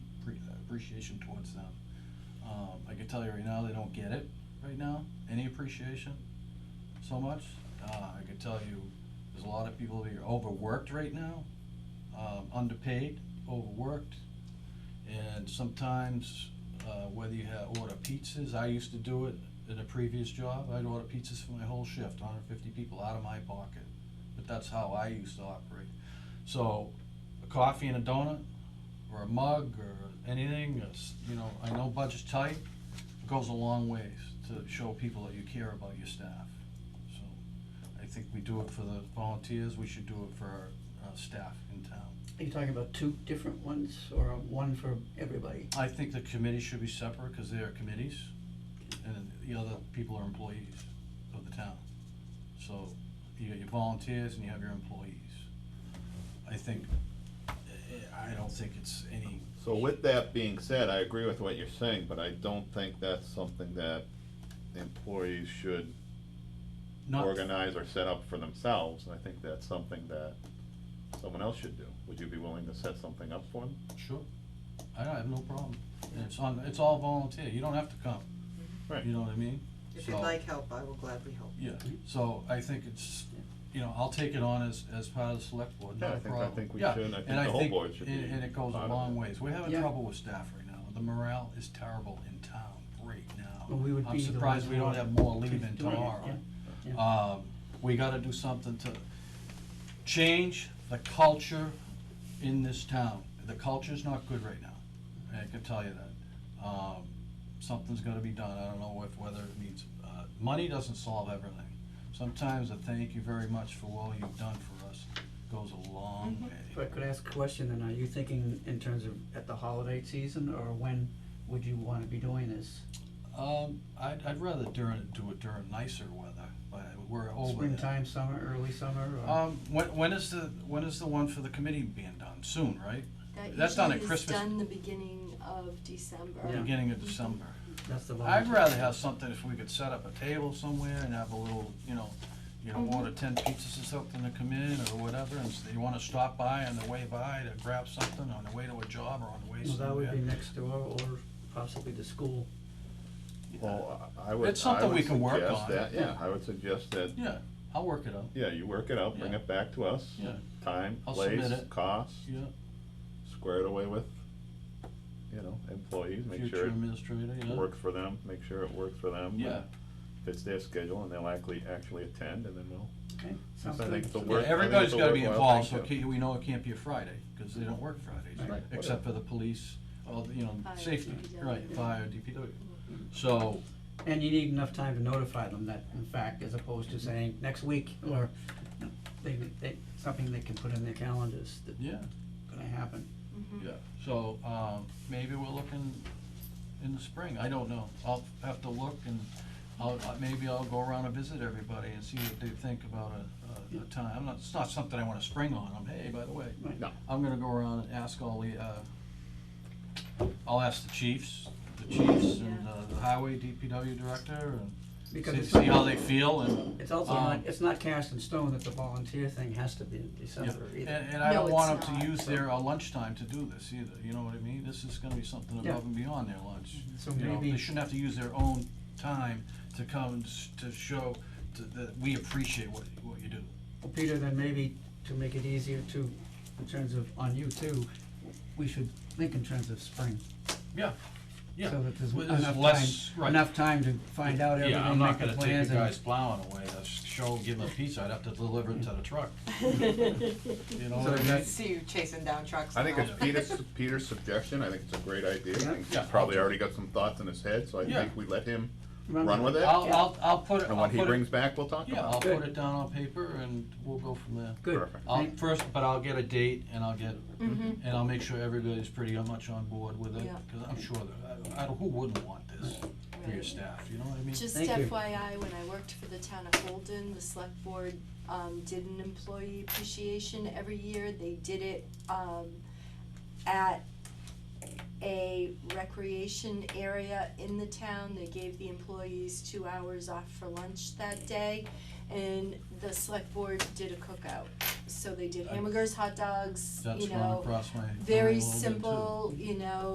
uh, appreciation towards them. Um, I can tell you right now, they don't get it right now, any appreciation so much. Uh, I could tell you, there's a lot of people that are overworked right now, um, underpaid, overworked. And sometimes, uh, whether you have, order pizzas, I used to do it in a previous job, I'd order pizzas for my whole shift, hundred fifty people out of my pocket. But that's how I used to operate. So, a coffee and a donut, or a mug, or anything, it's, you know, I know budget's tight, it goes a long ways to show people that you care about your staff. So, I think we do it for the volunteers, we should do it for our, uh, staff in town. Are you talking about two different ones or one for everybody? I think the committee should be separate, cause they are committees, and the other people are employees of the town. So, you got your volunteers and you have your employees. I think, eh, I don't think it's any, So with that being said, I agree with what you're saying, but I don't think that's something that employees should not. organize or set up for themselves. I think that's something that someone else should do. Would you be willing to set something up for them? Sure, I don't have no problem, and it's on, it's all volunteer, you don't have to come, Right. you know what I mean? If you'd So- like help, I will gladly help. Yeah, so I think it's, you know, I'll take it on as, as part of the select board, Yeah, I not a think- I problem. think we Yeah, should, and I and think the whole board should And, be and it goes a part of long it. ways, we're having Yeah. trouble with staff right now, the morale is terrible in town right now. Well, we would be the I'm surprised ones we don't who have more are leaving doing it, tomorrow. yeah, Um, we gotta do something to change the culture in this town. The culture's not good right now, I can tell you that. Um, something's gotta be done, I don't know if, whether it needs, uh, money doesn't solve everything. Sometimes a thank you very much for all you've done for us goes a long way. But could I ask a question then, are you thinking in terms of at the holiday season or when would you wanna be doing this? Um, I'd, I'd rather during, do it during nicer weather, but we're over that. Springtime, summer, early summer or? Oh, Um, when, when is the, when is the one for the committee being done? Soon, right? That's not not at Christmas. done the beginning of December. Mm-hmm. Yeah. beginning of December. That's the I'd volunteer. rather have something if we could set up a table somewhere and have a little, you know, you know, Mhm. order ten pizzas or something to come in or whatever, and so you wanna stop by on the way by to grab something on the way to a job or on the way Well, that would be somewhere. next door or possibly the school. Well, uh, I I would, It's I something we would can work suggest on. that, yeah, I would suggest that, Yeah, I'll work it out, yeah, you work it out, bring Yeah. it back to us. Yeah. Time, I'll place, submit it. cost, yeah, square it away with, you know, employees, make future sure it administrator, yeah, works for them, make sure it works for them. and yeah. Fits their schedule and they'll actually, actually attend and then we'll Okay, sounds I think good. it's the Yeah, work- I think everybody's it's a gotta be worthwhile involved, so thing it to- can't- we know it can't be a Friday, cause they don't work Fridays, Right. except for the police, all, the, you know, Fire, safety, DPW. right, fire, DPW. So, And you need enough time to notify them that, in fact, as opposed to saying next week or they, they, something they can put in their calendars that's yeah, gonna happen. Mhm. Yeah, so, um, maybe we're looking in the spring, I don't know, I'll have to look and I'll, I- maybe I'll go around and visit everybody and see what they think about a, a, a time, I'm not, it's not something I wanna spring on them, hey, by the way. Right. No. I'm gonna go around and ask all the, uh, I'll ask the chiefs, the chiefs and uh, the highway DPW director Because and see, it's see how not, they feel and. it's also um, not, it's not cast in stone that the volunteer thing has to be in Yeah, December and, either. and I No, don't it's want them not, to use their uh, lunchtime to do this either, you know what I mean? This is gonna be something Yeah. above and beyond their lunch. So You know, they maybe- shouldn't have to use their own time to come and s- to show to- that we appreciate what, what you do. Well, Peter, then maybe to make it easier to, in terms of, on you too, we should think in terms of spring. Yeah, yeah. So that there's Well, there's enough less- time, right. enough time to find out Yeah, I'm everything, not make the gonna take plans the guy's and, plowing away, to show, give him a pizza, I'd have to deliver it to the truck. Mm-hmm. You know So what I mean? that's- See you chasing down trucks I think now. it's Peter's, Peter's suggestion, I think it's a great idea, I Yeah. think Yeah. he's probably already got some thoughts in his head, so I Yeah. think we let him Run run with with it. I'll, I'll, I'll put it, And I'll what he put brings it, back, we'll talk yeah, I'll about. put it down on paper and we'll go from there. good. Perfect. I'll, Thank- first, but I'll get a date and I'll get, Mm-hmm. and I'll make sure everybody's pretty much on board with it, Yeah. cause I'm sure that, I, I, who wouldn't want this for your Right. staff, you know what I mean? Just Thank you. FYI, when I worked for the town of Holden, the select board, um, did an employee appreciation every year, they did it, um, at a recreation area in the town, they gave the employees two hours off for lunch that day, and the select board did a cookout, so they did hamburgers, hot dogs, That's you run know, across my. my very world, too. simple, you know,